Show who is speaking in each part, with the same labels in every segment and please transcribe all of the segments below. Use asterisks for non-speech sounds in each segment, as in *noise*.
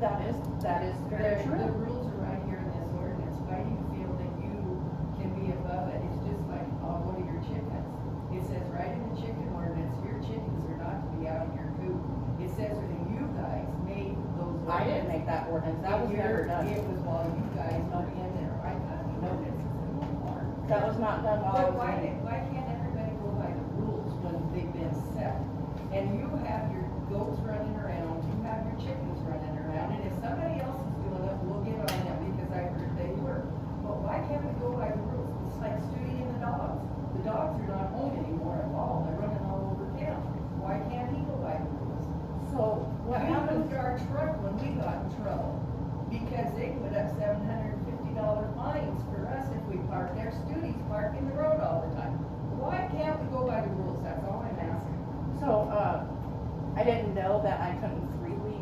Speaker 1: That is, that is
Speaker 2: Um, The,
Speaker 1: very
Speaker 2: the
Speaker 1: true.
Speaker 2: rules are right here in this ordinance, why do you feel that you can be above it, it's just like, oh, what are your chickens? It says right in the chicken ordinance, your chickens are not to be out in your coop, it says that you guys made those.
Speaker 1: I didn't make that ordinance, that was never
Speaker 2: Your- It
Speaker 1: done.
Speaker 2: was while you guys were in there, I thought the ordinance is a little more.
Speaker 1: That was not done while I
Speaker 2: But
Speaker 1: was
Speaker 2: why,
Speaker 1: in it.
Speaker 2: why can't everybody go by the rules when they've been set? And you have your goats running around, you have your chickens running around, and if somebody else is doing it, we'll get on them because I heard they were. But why can't we go by the rules? It's like Stewie and the dogs. The dogs are not home anymore at all, they're running all over town. Why can't he go by the rules?
Speaker 1: So
Speaker 2: We
Speaker 1: what happens,
Speaker 2: moved our truck when we got in trouble, because they put up seven hundred and fifty dollar fines for us if we parked there, studies park in the road all the time. Why can't we go by the rules, that's all I'm asking.
Speaker 1: so, uh, I didn't know that I couldn't freely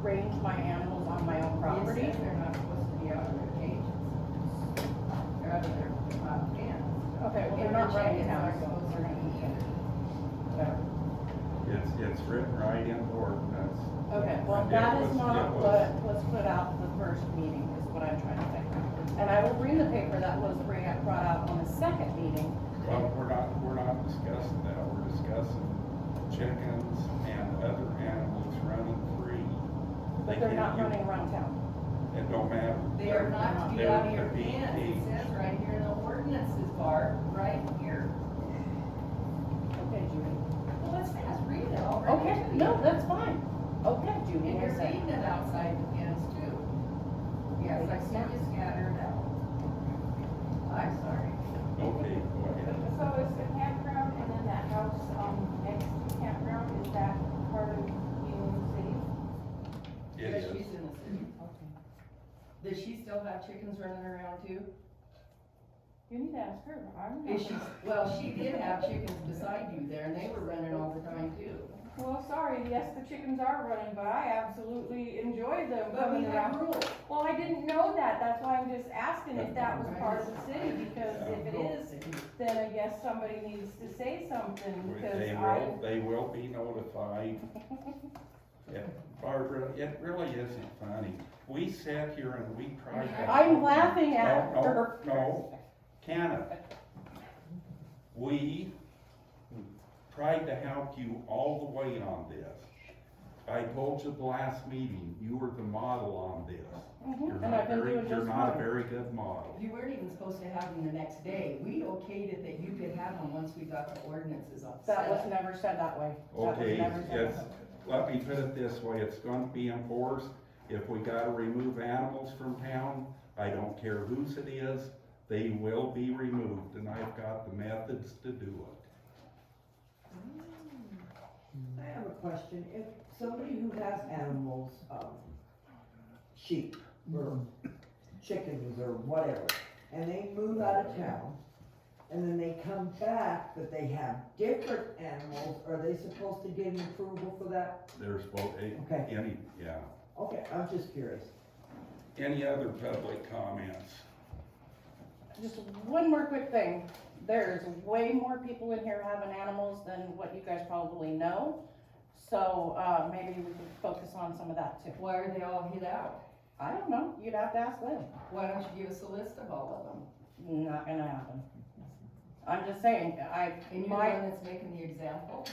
Speaker 1: range my animals on my own property.
Speaker 2: It says They're not supposed to be out of their cages. They're out of their, uh, pens.
Speaker 1: Okay, well, they're
Speaker 2: And
Speaker 1: not
Speaker 2: their
Speaker 1: running
Speaker 2: chickens
Speaker 1: now.
Speaker 2: aren't supposed to be either.
Speaker 3: It's, it's written right in the ordinance.
Speaker 1: Okay, well,
Speaker 3: It
Speaker 1: that is
Speaker 3: was-
Speaker 1: not
Speaker 3: it
Speaker 1: what
Speaker 3: was-
Speaker 1: was put out the first meeting, is what I'm trying to say. And I will bring the paper that was bring- brought out on the second meeting.
Speaker 3: Well, we're not, we're not discussing that, we're discussing chickens and other animals running free.
Speaker 1: But
Speaker 3: They
Speaker 1: they're not
Speaker 3: can't
Speaker 1: running
Speaker 3: get-
Speaker 1: around town.
Speaker 3: It don't matter.
Speaker 2: They are not to be
Speaker 3: They're-
Speaker 2: out of
Speaker 3: they're
Speaker 2: your
Speaker 3: being
Speaker 2: pens, it
Speaker 3: caged.
Speaker 2: says right here in the ordinances bar, right here.
Speaker 1: Okay, Judy.
Speaker 2: Well, it's fast, read it, I'll read it
Speaker 1: Okay,
Speaker 2: to you.
Speaker 1: no, that's fine. Okay, Judy,
Speaker 2: And
Speaker 1: what
Speaker 2: you're
Speaker 1: is that?
Speaker 2: seeing it outside the pins too. Yes, I see you scattered out. I'm sorry.
Speaker 3: Okay, go ahead.
Speaker 4: So is the campground and then that house, um, next to campground, is that part of Union City?
Speaker 3: It
Speaker 2: But
Speaker 3: is,
Speaker 2: She's in the city. Does she still have chickens running around too?
Speaker 4: You need to ask her, I'm
Speaker 2: Is
Speaker 4: not.
Speaker 2: she, well, she did have chickens beside you there and they were running all the time too.
Speaker 4: Well, sorry, yes, the chickens are running, but I absolutely enjoy them
Speaker 2: But we
Speaker 4: coming
Speaker 2: have
Speaker 4: around.
Speaker 2: rules.
Speaker 4: Well, I didn't know that, that's why I'm just asking if that was part of the city, because if it is, then I guess somebody needs to say something, because
Speaker 3: they
Speaker 4: I.
Speaker 3: will, they will be notified.
Speaker 2: *laughs*
Speaker 3: Yeah, Barbara, it really isn't funny, we sat here and we tried to.
Speaker 1: I'm laughing at
Speaker 3: No, no,
Speaker 1: her.
Speaker 3: No, Canada. We tried to help you all the way on this. I told you the last meeting, you were the model on this. You're
Speaker 1: Mhm, And
Speaker 3: not
Speaker 1: I've been
Speaker 3: very,
Speaker 1: doing
Speaker 3: you're
Speaker 1: just
Speaker 3: not a
Speaker 1: fine.
Speaker 3: very good model.
Speaker 2: You weren't even supposed to have them the next day. We okayed it that you could have them once we got the ordinances up.
Speaker 1: That was never said that way. That was
Speaker 3: Okay,
Speaker 1: never said
Speaker 3: it's,
Speaker 1: that way.
Speaker 3: let me put it this way, it's gonna be enforced. If we gotta remove animals from town, I don't care whose it is, they will be removed, and I've got the methods to do it.
Speaker 5: I have a question, if somebody who has animals, um, sheep, or chickens, or whatever, and they move out of town, and then they come back, but they have different animals, are they supposed to get an approval for that?
Speaker 3: There's both, eh,
Speaker 5: Okay.
Speaker 3: any, yeah.
Speaker 5: Okay, I'm just curious.
Speaker 3: Any other public comments?
Speaker 1: Just one more quick thing. There's way more people in here having animals than what you guys probably know. So, uh, maybe we could focus on some of that too.
Speaker 2: Why are they all hid out?
Speaker 1: I don't know, you'd have to ask them.
Speaker 2: Why don't you give us a list of all of them?
Speaker 1: Not gonna happen. I'm just saying, I,
Speaker 2: And you're the
Speaker 1: my,
Speaker 2: one that's making the example?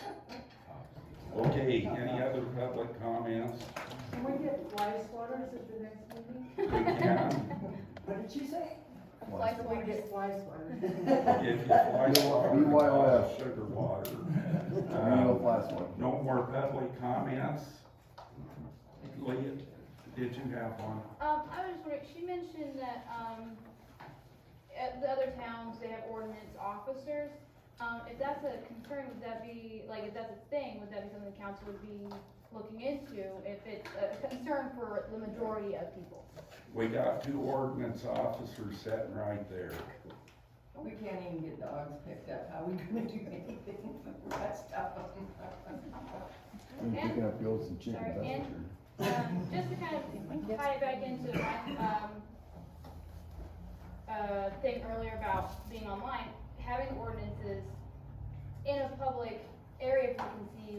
Speaker 3: Okay, any other public comments?
Speaker 6: Can we get live swatters at the next meeting?
Speaker 3: We can,
Speaker 5: What did she say?
Speaker 6: Can we get live swatters?
Speaker 3: if you fly water,
Speaker 7: BYOS.
Speaker 3: sugar water.
Speaker 7: Real
Speaker 3: Uh,
Speaker 7: last one.
Speaker 3: No more public comments? Leah, did you have one?
Speaker 8: Um, I was wondering, she mentioned that, um, at the other towns, they have ordinance officers. Um, if that's a concern, would that be, like, if that's a thing, would that be something the council would be looking into? If it's a concern for the majority of people?
Speaker 3: We got two ordinance officers sitting right there.
Speaker 2: We can't even get dogs picked up, how we gonna do anything *laughs* with the rest of them?
Speaker 7: I'm picking up goats and chickens,
Speaker 8: Sorry,
Speaker 7: that's
Speaker 8: and-
Speaker 7: for sure.
Speaker 8: Um, just to kind of tie it back into my, um, uh, thing earlier about being online, having ordinances in a public area, if you can see